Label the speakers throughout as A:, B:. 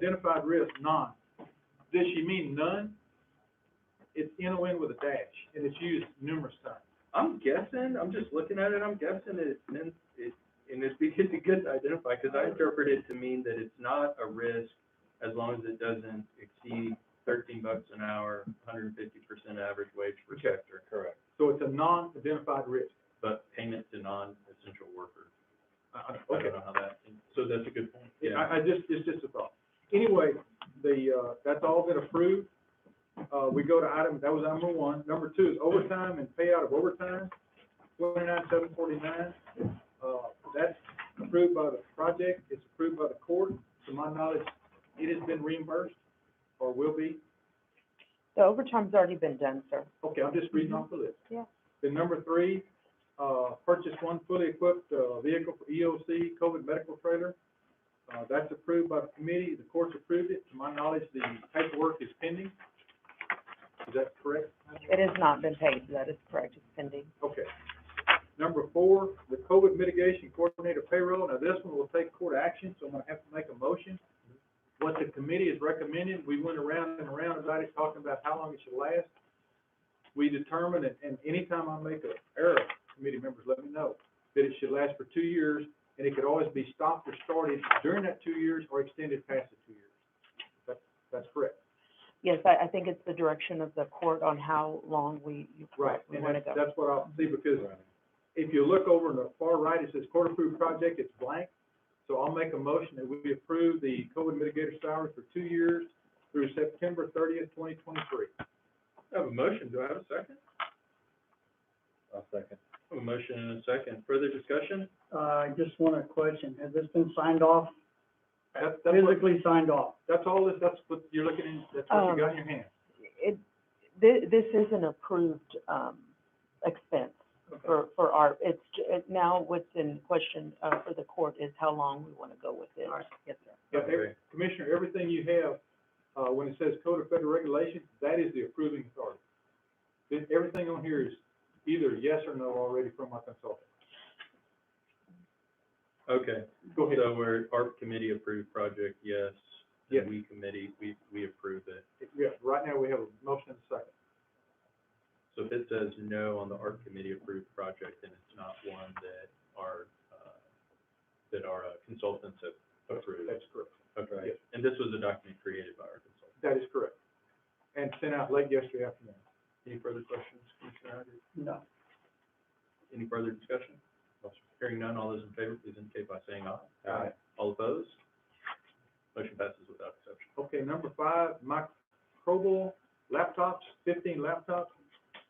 A: Identified risk, none. Does she mean none? It's N O N with a dash, and it's used numerous times.
B: I'm guessing, I'm just looking at it, I'm guessing it meant, it, and it's because it gets identified, because I interpret it to mean that it's not a risk as long as it doesn't exceed thirteen bucks an hour, hundred and fifty percent average wage per
A: Okay.
B: sector. Correct.
A: So it's a non-identified risk.
B: But payment to non-essential workers.
A: I- I-
B: I
A: Okay.
B: don't know how that, so that's a good point, yeah.
A: I, I just, it's just a thought. Anyway, the, uh, that's all been approved. Uh, we go to item, that was item number one. Number two is overtime and payout of overtime, twenty-nine, seven forty-nine. Uh, that's approved by the project, it's approved by the court. To my knowledge, it has been reimbursed or will be.
C: The overtime's already been done, sir.
A: Okay, I'm just reading off the list.
C: Yeah.
A: Then number three, uh, purchase one fully equipped, uh, vehicle for EOC, COVID medical trailer. Uh, that's approved by the committee, the courts approved it, to my knowledge, the paperwork is pending. Is that correct?
C: It has not been paid, that is correct, it's pending.
A: Okay. Number four, the COVID mitigation coordinator payroll, now this one will take court action, so I'm gonna have to make a motion. What the committee is recommending, we went around and around about it, talking about how long it should last. We determined, and, and anytime I make an error, committee members let me know, that it should last for two years, and it could always be stopped or started during that two years or extended past the two years. That, that's correct.
C: Yes, I, I think it's the direction of the court on how long we,
A: Right,
C: we
A: and
C: wanna
A: that's,
C: go.
A: that's what I'll see, because if you look over in the far right, it says court approved project, it's blank. So I'll make a motion that we approve the COVID mitigator salary for two years through September thirtieth, twenty twenty-three.
B: I have a motion, do I have a second?
D: I'll second.
B: I have a motion and a second, further discussion?
E: Uh, I just want a question, has this been signed off,
A: That's, that's what,
E: physically signed off?
A: that's all this, that's what you're looking in, that's what you got in your
C: Um.
A: hand.
C: It, thi- this is an approved, um, expense for, for our, it's, j- it- now what's in question, uh, for the court is how long we wanna go with it. Yes, sir.
A: Yeah, every- Commissioner, everything you have, uh, when it says Code of Federal Regulations, that is the approving authority. Then Everything on here is either yes or no already from my consultant.
B: Okay,
A: Go ahead.
B: so we're, ARP committee approved project, yes.
A: Yes.
B: And we committee, we, we approve it.
A: Yeah, right now we have a motion and a second.
B: So if it says no on the art committee approved project, then it's not one that our, uh, that our uh, consultants have approved.
A: That's correct.
B: Okay,
A: yes.
B: and this was a document created by our consultant.
A: That is correct. And sent out late yesterday afternoon.
B: Any further questions, Commissioner Hodges?
E: No.
B: Any further discussion? Hearing none, all those in favor, please indicate by saying aye.
A: Aye.
B: All opposed? Motion passes without exception.
A: Okay, number five, microbial laptops, fifteen laptops.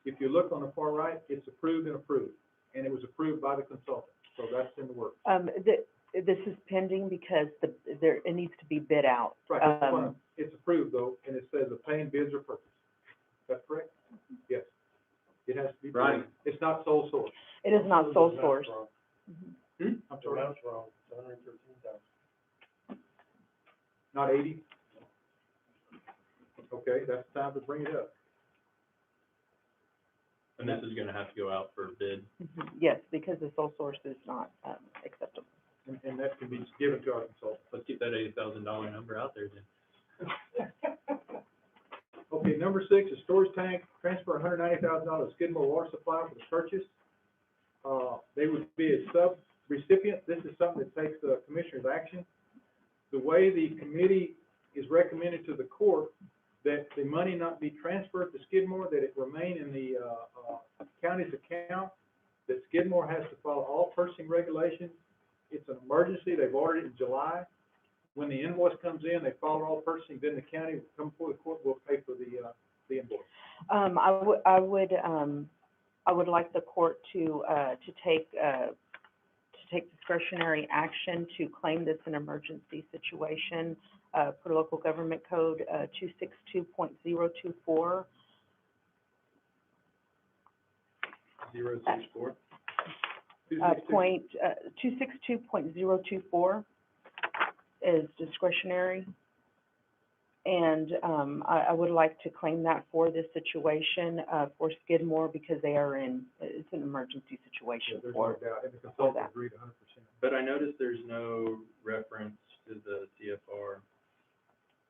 A: If you look on the far right, it's approved and approved, and it was approved by the consultant, so that's in the works.
C: Um, thi- this is pending because the, there, it needs to be bid out.
A: Right, that's what
C: Um,
A: I'm- it's approved though, and it says the paying bids are purchased. That's correct? Yes. It has to be.
B: Right.
A: It's not sole source.
C: It is not sole source.
A: I'm sorry. That's wrong, Not eighty? Okay, that's time to bring it up.
B: And this is gonna have to go out for bid.
C: Mhm. Yes, because the sole source is not, um, acceptable.
A: and, and that can be given to our consultant.
B: Let's keep that eighty thousand dollar number out there then.
A: Okay, number six is storage tank, transfer hundred ninety thousand dollars Skidmore Water Supply for the purchase. Uh, they would be a sub recipient, this is something that takes the commissioner's action. The way the committee is recommended to the court, that the money not be transferred to Skidmore, that it remain in the, uh, uh, county's account, that Skidmore has to follow all purchasing regulations. It's an emergency, they've ordered it in July, when the invoice comes in, they follow all purchasing, then the county will come before the court, will pay for the, uh, the invoice.
C: Um, I would, I would, um, I would like the court to, uh, to take, uh, to take discretionary action to claim this an emergency situation, uh, per local government code, uh, two six two point zero two four.
B: Zero six four.
A: Two
C: Uh,
A: six two-
C: point, uh, two six two point zero two four is discretionary. And, um, I, I would like to claim that for this situation, uh, for Skidmore because they are in, it's an emergency
A: Yeah,
C: situation
A: There's
C: for
A: no doubt, and the consultant
C: that.
A: agreed a hundred percent.
B: But I noticed there's no reference to the CFR